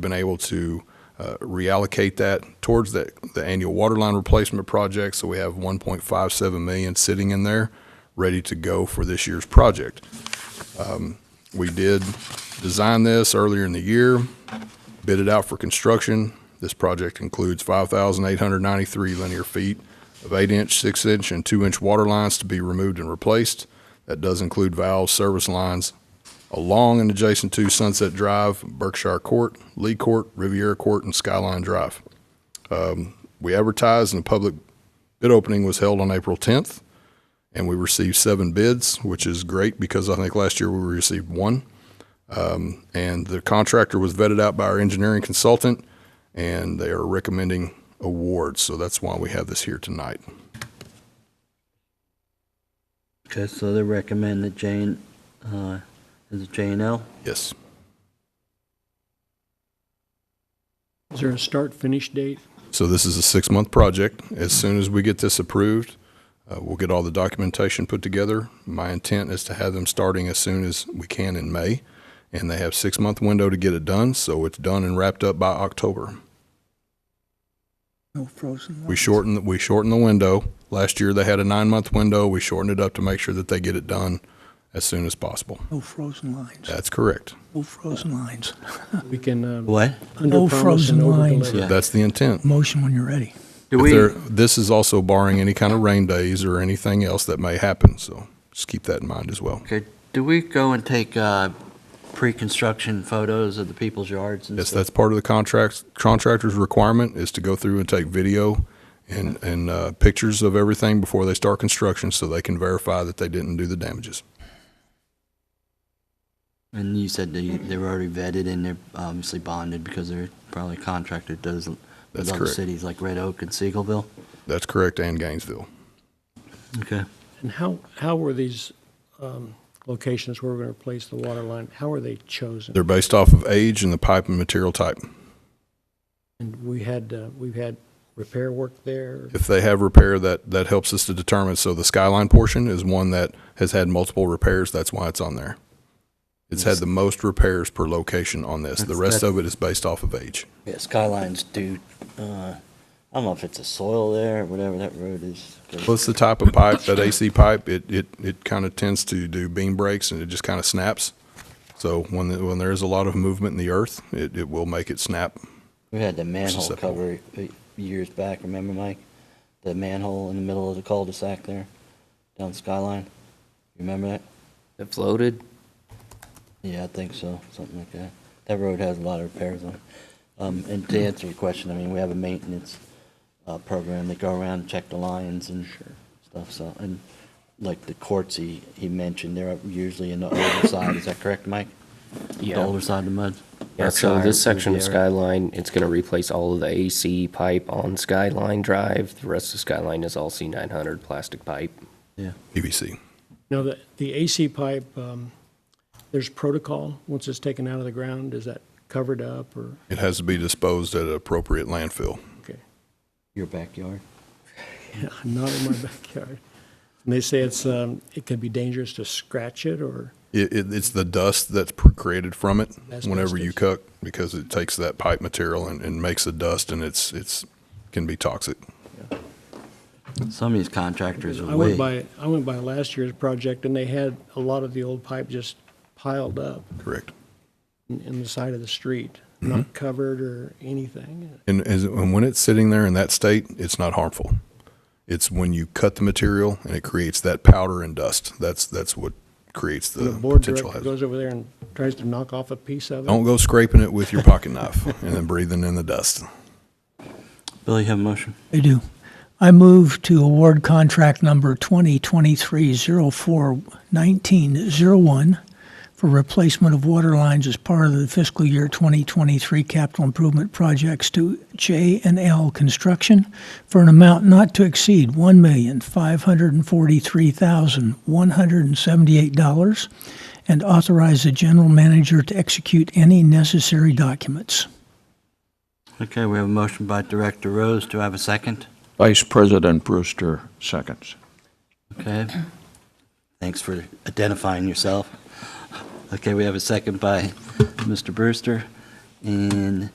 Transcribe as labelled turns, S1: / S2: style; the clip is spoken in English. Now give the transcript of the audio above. S1: been able to uh, reallocate that towards that, the annual water line replacement project. So we have 1.57 million sitting in there, ready to go for this year's project. Um, We did design this earlier in the year, bid it out for construction. This project includes 5,893 linear feet of eight-inch, six-inch, and two-inch water lines to be removed and replaced. That does include valves, service lines, along and adjacent to Sunset Drive, Berkshire Court, Lee Court, Riviera Court, and Skyline Drive. Um, We advertised and a public bid opening was held on April 10th, and we received seven bids, which is great because I think last year we received one. Um, And the contractor was vetted out by our engineering consultant, and they are recommending awards. So that's why we have this here tonight.
S2: Okay, so they recommend that Jane, uh, is it J and L?
S1: Yes.
S3: Is there a start, finish date?
S1: So this is a six-month project. As soon as we get this approved, uh, we'll get all the documentation put together. My intent is to have them starting as soon as we can in May, and they have six-month window to get it done, so it's done and wrapped up by October.
S4: No frozen
S1: We shortened, we shortened the window. Last year, they had a nine-month window. We shortened it up to make sure that they get it done as soon as possible.
S4: No frozen lines.
S1: That's correct.
S4: No frozen lines.
S3: We can um,
S2: What?
S4: No
S3: underpromise
S4: frozen
S3: and
S4: lines.
S3: overdeliver.
S2: Yeah.
S1: That's the intent.
S4: Motion when you're ready.
S2: Do
S1: If
S2: we,
S1: there- This is also barring any kind of rain days or anything else that may happen, so just keep that in mind as well.
S2: okay, do we go and take, uh, pre-construction photos of the people's yards and
S1: Yes,
S2: stuff?
S1: that's part of the contract, contractor's requirement is to go through and take video and, and uh, pictures of everything before they start construction so they can verify that they didn't do the damages.
S2: And you said they, they were already vetted and they're obviously bonded because they're probably a contractor that does
S1: That's
S2: with other
S1: correct.
S2: cities like Red Oak and Siegelville.
S1: That's correct, and Gainesville.
S2: Okay.
S3: And how, how were these um, locations where we're going to replace the water line, how are they chosen?
S1: They're based off of age and the pipe and material type.
S3: And we had, uh, we've had repair work there.
S1: If they have repair, that, that helps us to determine. So the skyline portion is one that has had multiple repairs. That's why it's on there. It's had the most repairs per location on this. The
S2: That's-
S1: rest
S2: that's-
S1: of it is based off of age.
S2: Yeah, Skyline's due, uh, I don't know if it's a soil there or whatever that road is.
S1: Well, it's the type of pipe, that AC pipe, it, it, it kind of tends to do beam breaks and it just kind of snaps. So when, the- when there is a lot of movement in the earth, it, it will make it snap.
S2: We had the manhole
S1: Susceptible.
S2: cover uh, years back, remember, Mike? The manhole in the middle of the cul-de-sac there, down Skyline? You Remember that?
S5: It floated.
S2: Yeah, I think so, something like that. That road has a lot of repairs on it. Um, and to answer your question, I mean, we have a maintenance, uh, program. They go around and check the lines and stuff, so, and like the courts he, he mentioned, they're usually in the older side, is that correct, Mike? The older side of the mud?
S5: Yeah, so
S2: Berkshire,
S5: this section of
S2: Riviera.
S5: Skyline, it's gonna replace all of the AC pipe on Skyline Drive. The rest of Skyline is all C nine hundred plastic pipe.
S2: Yeah.
S1: PVC.
S3: Now, the, the AC pipe, um, there's protocol, once it's taken out of the ground, is that covered up or,
S1: It has to be disposed at an appropriate landfill.
S3: okay?
S2: Your backyard?
S3: Yeah, Not in my backyard. And they say it's, um, it can be dangerous to scratch it or?
S1: It, it, it's the dust that's pr- created from it
S3: That's
S1: whenever
S3: dust,
S1: you
S3: that's-
S1: cook because it takes that pipe material and, and makes a dust and it's, it's, can be toxic.
S2: Some of these contractors
S3: I
S2: are
S3: went
S2: way,
S3: by, I went by last year's project, and they had a lot of the old pipe just piled up
S1: Correct.
S3: in, in the side of the street,
S1: Mm-hmm.
S3: not covered or anything.
S1: And, as- and when it's sitting there in that state, it's not harmful. It's when you cut the material and it creates that powder and dust. That's, that's what creates
S3: And
S1: the
S3: the board
S1: potential Oh,
S3: director
S1: hazard.
S3: goes over there and tries to knock off a piece of it.
S1: Don't go scraping it with your pocket knife and then breathing in the dust.
S2: Billy, you have a motion?
S4: I do. I move to award contract number 2023-04-1901 for replacement of water lines as part of the fiscal year 2023 capital improvement projects to J and L Construction for an amount not to exceed $1,543,178 and authorize the general manager to execute any necessary documents.
S2: Okay, we have a motion by Director Rose. Do I have a second?
S6: Vice President Brewster seconds.
S2: Okay. Thanks for identifying yourself. Okay, we have a second by Mr. Brewster. And